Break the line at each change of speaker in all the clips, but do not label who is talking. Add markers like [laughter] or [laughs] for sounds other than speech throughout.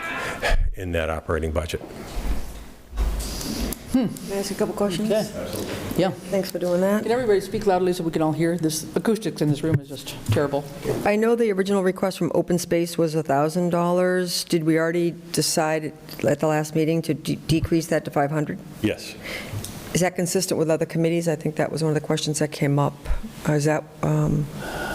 uh, in that operating budget.
Can I ask a couple questions?
Okay. Yeah.
Thanks for doing that.
Can everybody speak loudly so we can all hear? This acoustics in this room is just terrible.
I know the original request from Open Space was $1,000. Did we already decide at the last meeting to de- decrease that to 500?
Yes.
Is that consistent with other committees? I think that was one of the questions that came up. Uh, Is that, um,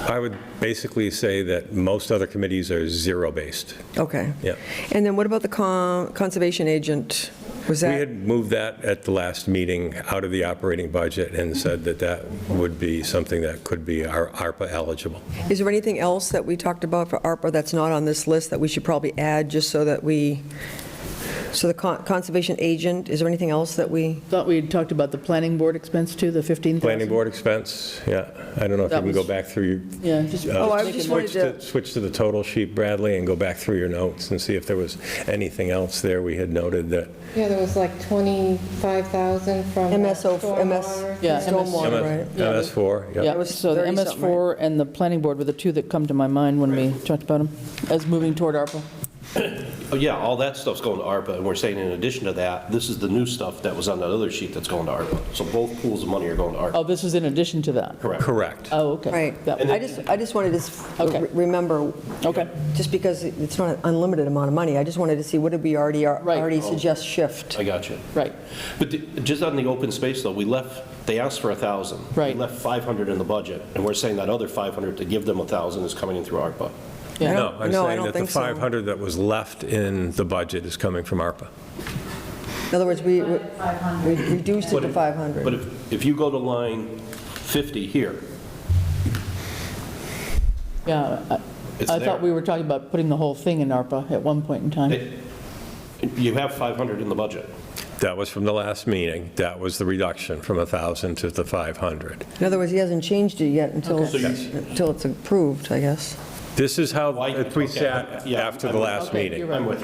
I would basically say that most other committees are zero-based.
okay.
Yeah.
And then what about the con- conservation agent? Was
We
that,
had moved that at the last meeting out of the operating budget and said that that would be something that could be our ARPA eligible.
is there anything else that we talked about for ARPA that's not on this list that we should probably add, just so that we, so the con- conservation agent, is there anything else that we?
Thought we had talked about the planning board expense too, the 15,000?
Planning board expense, yeah. I don't know if you
That
can
was-
go back through your
Yeah. just-
Uh,
Oh, I
make a
just
note.
wanted
Switch
to-
to, switch to the total sheet, Bradley, and go back through your notes and see if there was anything else there we had noted that
Yeah, there was like 25,000 from.
MSO, MS,
stormwater.
Yeah,
stormwater, right?
Yeah.
MS4, yeah.
Yeah,
was
so the
30-something,
MS4 and the planning board were the two that come to my mind when we talked about them, as moving toward ARPA.
Oh, yeah, all that stuff's going to ARPA, and we're saying in addition to that, this is the new stuff that was on that other sheet that's going to ARPA. So both pools of money are going to ARPA.
Oh, this is in addition to that?
Correct.
Correct.
Oh, okay.
Right.
That-
I just, I just wanted to s-
Okay.
re- remember,
Okay,
just because it's not an unlimited amount of money, I just wanted to see what did we already,
Right.
already suggest shift?
I got you.
right,
But the- just on the open space, though, we left, they asked for a 1,000.
Right.
We left 500 in the budget, and we're saying that other 500 to give them a 1,000 is coming in through ARPA.
yeah.
No, I'm
No, I
saying
don't
that the
think so.
500 that was left in the budget is coming from ARPA.
In other words, we we- we reduced it to
But
500.
if, if you go to line 50 here,
Yeah, I-
It's
I
there.
thought we were talking about putting the whole thing in ARPA at one point in time.
it- you have 500 in the budget.
That was from the last meeting. That was the reduction from 1,000 to the 500.
In other words, he hasn't changed it yet until,
Okay. So
it's- until it's approved, I guess.
This is how
Why-
we
okay,
sat
yeah,
after the
I'm-
last
Okay,
meeting.
you're
I'm with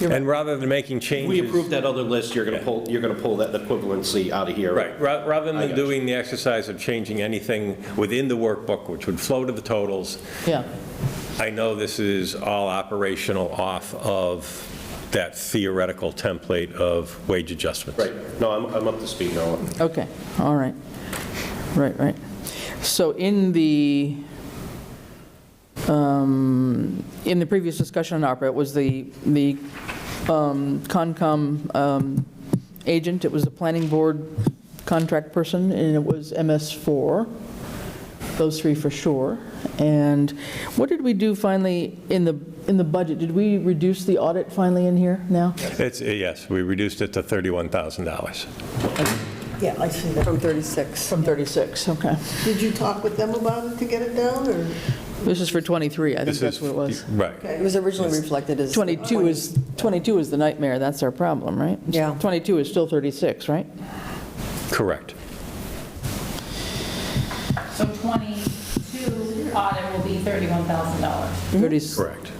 you.
And rather than making changes.
We approved that other list, you're going to pull, you're going to pull that equivalency out of here.
Right, ra- rather
I
than
got you.
doing the exercise of changing anything within the workbook, which would flow to the totals,
Yeah,
I know this is all operational off of that theoretical template of wage adjustments.
Right, no, I'm, I'm up to speed now.
okay, all right, right, right. So in the, um, in the previous discussion on ARPA, it was the, the um, Concom um, agent, it was the planning board contract person, and it was MS4, those three for sure. And what did we do finally in the, in the budget? Did we reduce the audit finally in here now?
It's, yes, we reduced it to $31,000.
Yeah, I see that.
From 36.
From 36, okay.
Did you talk with them about it to get it down, or?
This is for 23, I think
This
that's
is-
what it was.
Right.
It was originally reflected as.
22 is, 22 is the nightmare, that's our problem, right?
Yeah.
22 is still 36, right?
Correct.
So 22 audit will be $31,000.
30
Correct.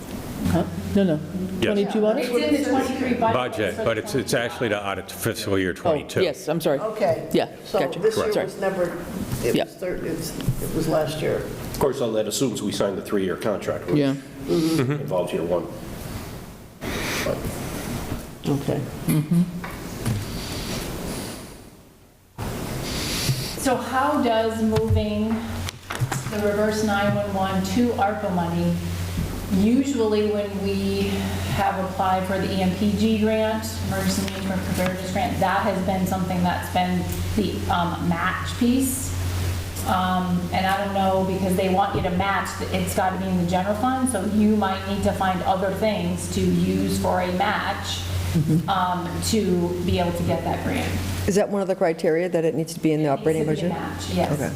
huh? No, no.
Yes.
22 on it?
It's in the 23 budget.
Budget, but it's, it's actually to audit fiscal year
Oh,
22.
Yes, I'm sorry.
Okay.
Yeah, gotcha.
So this year
Sorry.
was never, it
Yeah.
was third, it's- it was last year.
Of course, all that assumes we signed the three-year contract, which
Yeah,
involves year one.
Okay.
So how does moving the reverse 911 to ARPA money, usually when we have applied for the E EMPG grant, Emergency Management Preparedness Grant, that has been something that's been the um, match piece. Um, And I don't know, because they want you to match, it's got to be in the general fund, so you might need to find other things to use for a match um, to be able to get that grant.
Is that one of the criteria, that it needs to be in the operating
Needs to
budget?
be a match, yes.
Okay.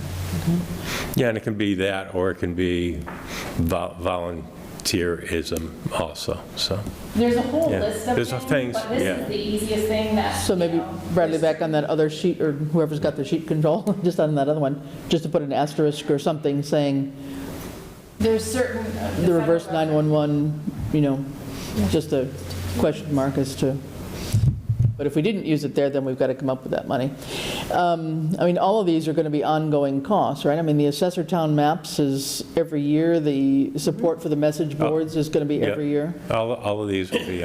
Yeah, and it can be that, or it can be vol- volunteerism also, so.
There's a whole
Yeah.
list of things.
There's a things,
But this
yeah.
is the easiest thing that.
so maybe
you know,
Bradley
there's-
back on that other sheet, or whoever's got the sheet control, [laughs] just on that other one, just to put an asterisk or something saying
There's certain. uh,
the reverse
federal-
911, you know, just a question mark as to, but if we didn't use it there, then we've got to come up with that money. Um, I mean, all of these are going to be ongoing costs, right? I mean, the assessor town maps is every year, the support for the message boards is going to be
yeah.
every year.
All, all of these will be